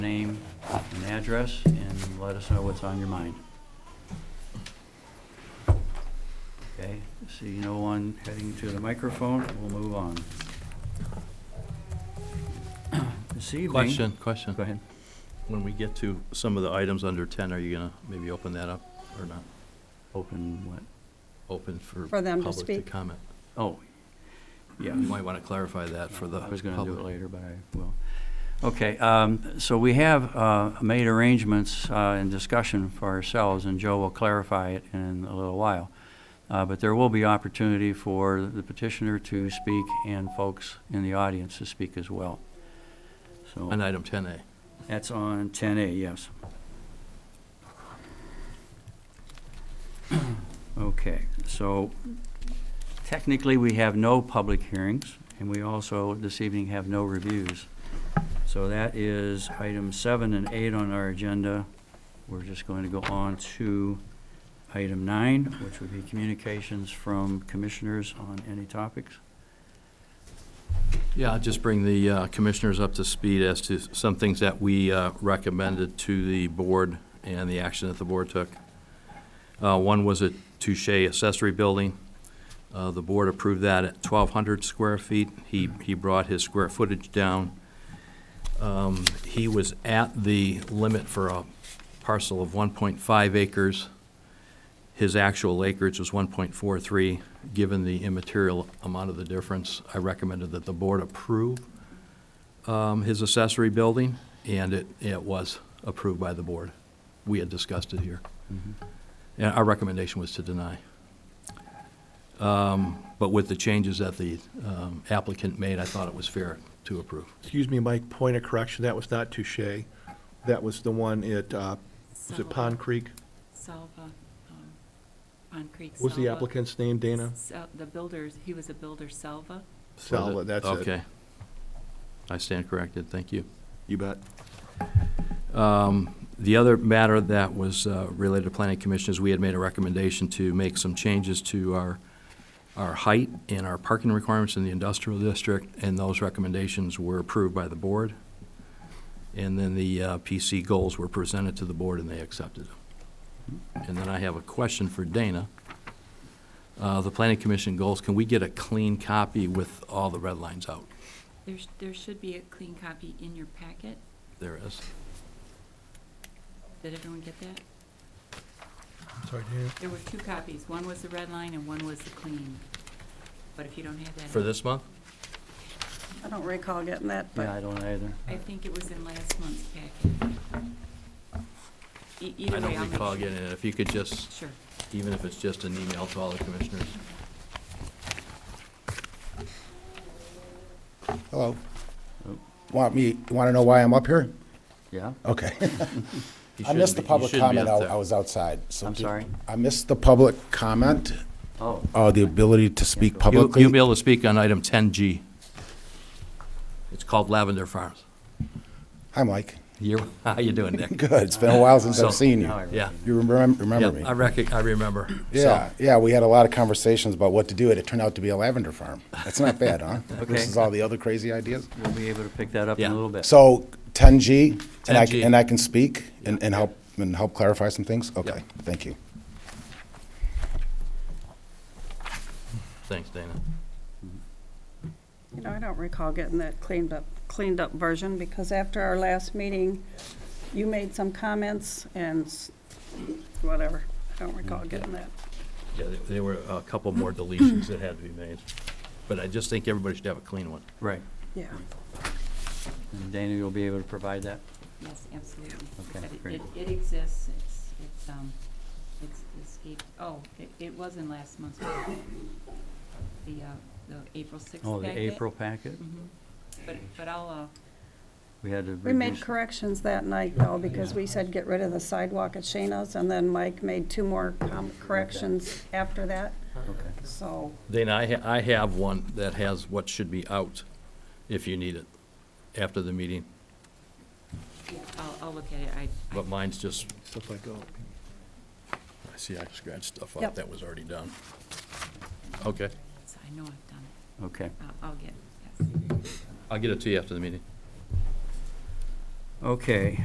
name uh, and address, and let us know what's on your mind. Okay, see no one heading to the microphone, we'll move on. This evening. Question, question. Go ahead. When we get to some of the items under 10, are you going to maybe open that up or not? Open what? Open for For them to public to speak. comment? Oh, yeah. You might want to clarify that for the I public. was gonna do it later, but I will. Okay, um, so we have, uh, made arrangements, uh, in discussion for ourselves, and Joe will clarify it in a little while. Uh, but there will be opportunity for the petitioner to speak and folks in the audience to speak as well. On So, item 10A. that's on ten A, yes. Okay, so technically, we have no public hearings, and we also, this evening, have no reviews. So that is item seven and eight on our agenda. We're just going to go on to item nine, which would be communications from commissioners on any topics. Yeah, I'll just bring the uh, commissioners up to speed as to some things that we uh, recommended to the board and the action that the board took. Uh, One was a Touche accessory building. Uh, The board approved that at 1,200 square feet. He, he brought his square footage down. Um, He was at the limit for a parcel of 1.5 acres. His actual acreage was 1.43. Given the immaterial amount of the difference, I recommended that the board approve um, his accessory building, and it, it was approved by the board. We had discussed it here. And our recommendation was to deny. Um, But with the changes that the um, applicant made, I thought it was fair to approve. Excuse me, Mike, point of correction, that was not Touche. That was the one at, uh, was it Pond Creek? Salva, um, on Creek. What was the Salva. applicant's name, Dana? Sal- The builders, he was a builder, Salva. Salva, that's it. Okay. I stand corrected, thank you. You bet. The other matter that was uh, related to planning commission is we had made a recommendation to make some changes to our, our height and our parking requirements in the industrial district, and those recommendations were approved by the board. And then the uh, PC goals were presented to the board and they accepted them. And then I have a question for Dana. Uh, The planning commission goals, can we get a clean copy with all the red lines out? There's, there should be a clean copy in your packet. There is. Did everyone get that? Sorry, Dana. There were two copies. One was the red line and one was the clean. But if you don't have that. For this month? I don't recall getting that, Yeah, I but don't either. I think it was in last month's packet. E- Either I way, don't I'll make recall sure. getting it. If you could just Sure. even if it's just an email to all the commissioners. Hello. Oh. Want me, want to know why I'm up here? Yeah? Okay. He I shouldn't missed the be- he public shouldn't be comment. up I there. I was outside. so I'm did- sorry? I missed the public comment, Oh, uh, the ability to speak You'll you'll be publicly. able to speak on item 10G. It's called Lavender Farms. Hi, Mike. You, how you doing, Nick? Good. It's been a while since I've So- seen now I you. remember. Yeah. You remem- remember Yeah, I me? rec, I remember. So, Yeah, yeah, we had a lot of conversations about what to do, and it turned out to be a lavender farm. That's not bad, huh? Versus all the other crazy ideas. we'll be able to pick that up in Yeah. a little bit. So 10G, and I, 10G. c- and I can speak and and help, and help clarify some things? Okay, thank you. Thanks, Dana. you know, I don't recall getting that cleaned up, cleaned up version because after our last meeting, you made some comments and s- whatever. I don't recall getting that. Yeah, there- there were a couple more deletions that had to be made, but I just think everybody should have a clean one. Right. Yeah. And Dana, you'll be able to provide that? Yes, absolutely. Okay, But it- great. it- It exists, it's, it's, um, it's escaped, oh, it, it was in last month's, packet. the, uh, the April sixth packet. Oh, the April packet? Mhm. But, but I'll, uh, We had to We made reduce- corrections that night though, because we said get rid of the sidewalk at Shayna's and then Mike made two more com- corrections after that, Okay. so. Dana, I, ha- I have one that has what should be out, if you need it, after the meeting, I'll, I'll look at it, I, but mine's just, Stuff like, oh, I see I scratched stuff up Yep. that was already done. Okay, I know I've done it, Okay. I'll, I'll get it, yes. I'll get it to you after the meeting. Okay,